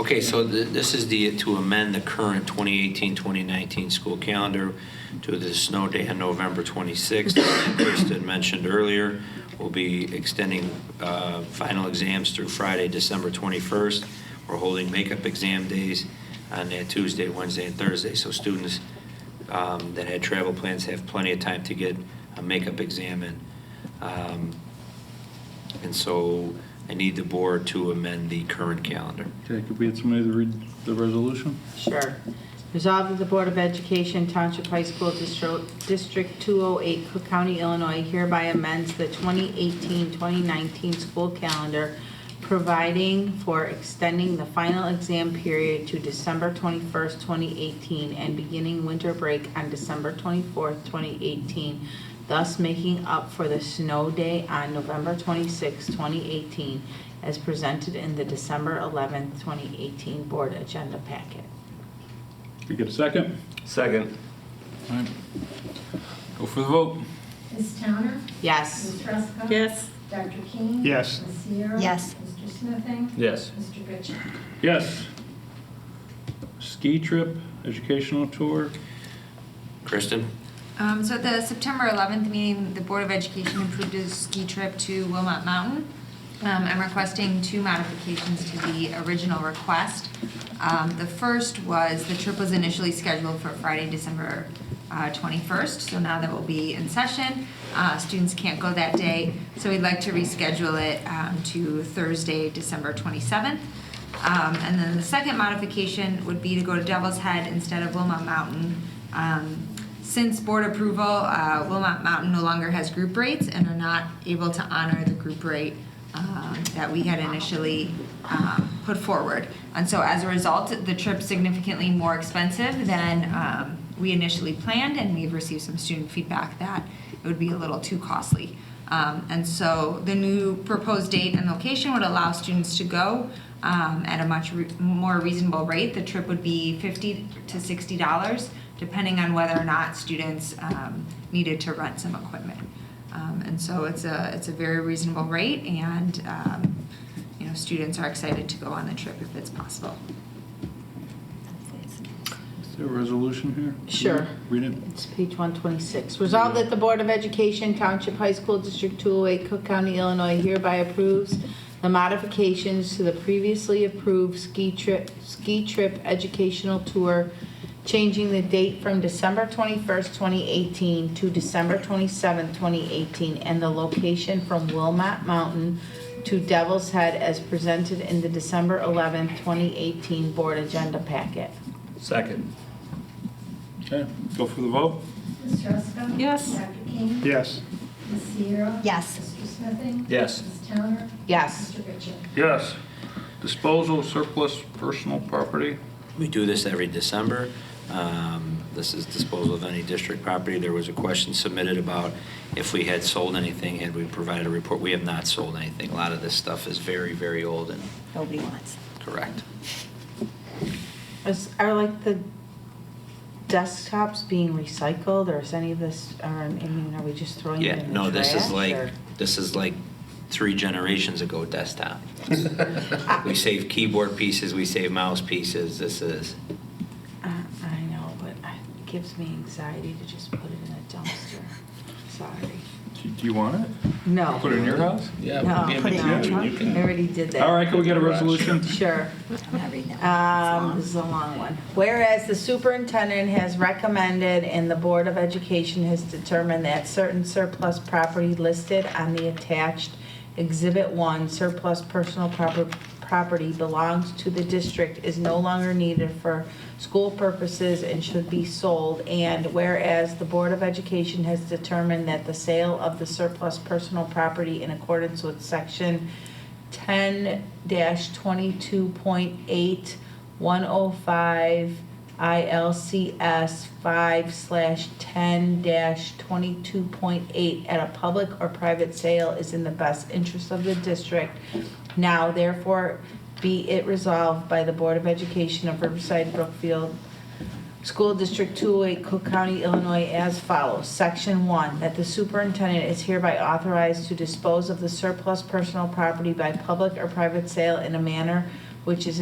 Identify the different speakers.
Speaker 1: Okay, so th- this is the, to amend the current 2018-2019 school calendar to the snow day on November 26th. As Kristen mentioned earlier, we'll be extending uh, final exams through Friday, December 21st. We're holding makeup exam days on that Tuesday, Wednesday, and Thursday. So students um, that had travel plans have plenty of time to get a makeup exam in. Um, And so I need the board to amend the current calendar.
Speaker 2: Okay, could we get somebody to read the resolution?
Speaker 3: Sure. Resolved that the Board of Education Township High School Distro- District 208, Cook County, Illinois hereby amends the 2018-2019 school calendar, providing for extending the final exam period to December 21st, 2018, and beginning winter break on December 24th, 2018, thus making up for the snow day on November 26th, 2018, as presented in the December 11th, 2018 Board Agenda Packet.
Speaker 2: Could we get a second?
Speaker 4: Second.
Speaker 2: All right. Go for the vote.
Speaker 5: Ms. Towner?
Speaker 3: Yes.
Speaker 5: Ms. Ruska?
Speaker 6: Yes.
Speaker 5: Dr. King?
Speaker 2: Yes.
Speaker 5: Ms. Sierra?
Speaker 6: Yes.
Speaker 5: Mr. Smithing?
Speaker 4: Yes.
Speaker 5: Mr. Goodchick?
Speaker 2: Yes. Ski trip, educational tour.
Speaker 1: Kristen?
Speaker 7: Um, so at the September 11th meeting, the Board of Education approved a ski trip to Wilmot Mountain. Um, I'm requesting two modifications to the original request. Um, the first was the trip was initially scheduled for Friday, December uh, 21st, so now that we'll be in session, uh, students can't go that day. So we'd like to reschedule it um, to Thursday, December 27th. Um, and then the second modification would be to go to Devil's Head instead of Wilmot Mountain. Um, since board approval, uh, Wilmot Mountain no longer has group rates and are not able to honor the group rate um, that we had initially um, put forward. And so as a result, the trip's significantly more expensive than um, we initially planned, and we've received some student feedback that it would be a little too costly. Um, and so the new proposed date and location would allow students to go um, at a much re- more reasonable rate. The trip would be 50 to 60 dollars, depending on whether or not students um, needed to rent some equipment. Um, and so it's a it's a very reasonable rate, and um, you know students are excited to go on the trip if it's possible.
Speaker 2: Is there a resolution here? Could you
Speaker 3: Sure.
Speaker 2: Read it.
Speaker 3: It's page 126. Resolved that the Board of Education Township High School District 208, Cook County, Illinois hereby approves the modifications to the previously approved ski trip, ski trip educational tour, changing the date from December 21st, 2018 to December 27th, 2018, and the location from Wilmot Mountain to Devil's Head as presented in the December 11th, 2018 Board Agenda Packet.
Speaker 4: Second.
Speaker 2: Okay, go for the vote.
Speaker 5: Ms. Ruska?
Speaker 6: Yes.
Speaker 5: Dr. King?
Speaker 2: Yes.
Speaker 5: Ms. Sierra?
Speaker 6: Yes.
Speaker 5: Mr. Smithing?
Speaker 4: Yes.
Speaker 5: Ms. Towner?
Speaker 3: Yes.
Speaker 5: Mr. Goodchick?
Speaker 2: Yes. Disposal surplus personal property.
Speaker 1: We do this every December. Um, This is disposal of any district property. There was a question submitted about if we had sold anything, had we provided a report. We have not sold anything. A lot of this stuff is very, very old and
Speaker 6: Nobody wants.
Speaker 1: correct.
Speaker 3: Is, are like the desktops being recycled, or is any of this, or, I mean, are we just throwing it
Speaker 1: Yeah,
Speaker 3: in the trash?
Speaker 1: no, this is like,
Speaker 3: or-
Speaker 1: this is like three generations ago desktop. We save keyboard pieces, we save mouse pieces. This is,
Speaker 3: Uh, I know, but it gives me anxiety to just put it in a dumpster. Sorry.
Speaker 2: Do do you want it?
Speaker 3: No.
Speaker 2: Put it in your house?
Speaker 4: Yeah.
Speaker 3: No, put it in
Speaker 2: Yeah,
Speaker 3: a truck. I already did that.
Speaker 2: All right, can we get a resolution?
Speaker 3: Sure.
Speaker 6: I'm not reading that.
Speaker 3: Um, this is a long one. Whereas the superintendent has recommended and the Board of Education has determined that certain surplus property listed on the attached Exhibit 1 surplus personal proper- property belongs to the district is no longer needed for school purposes and should be sold. And whereas the Board of Education has determined that the sale of the surplus personal property in accordance with Section 10-22.8 105 ILCS 5 slash 10 dash 22.8 at a public or private sale is in the best interest of the district. Now therefore be it resolved by the Board of Education of Riverside Brookfield School District 208, Cook County, Illinois, as follows. Section 1, that the superintendent is hereby authorized to dispose of the surplus personal property by public or private sale in a manner which is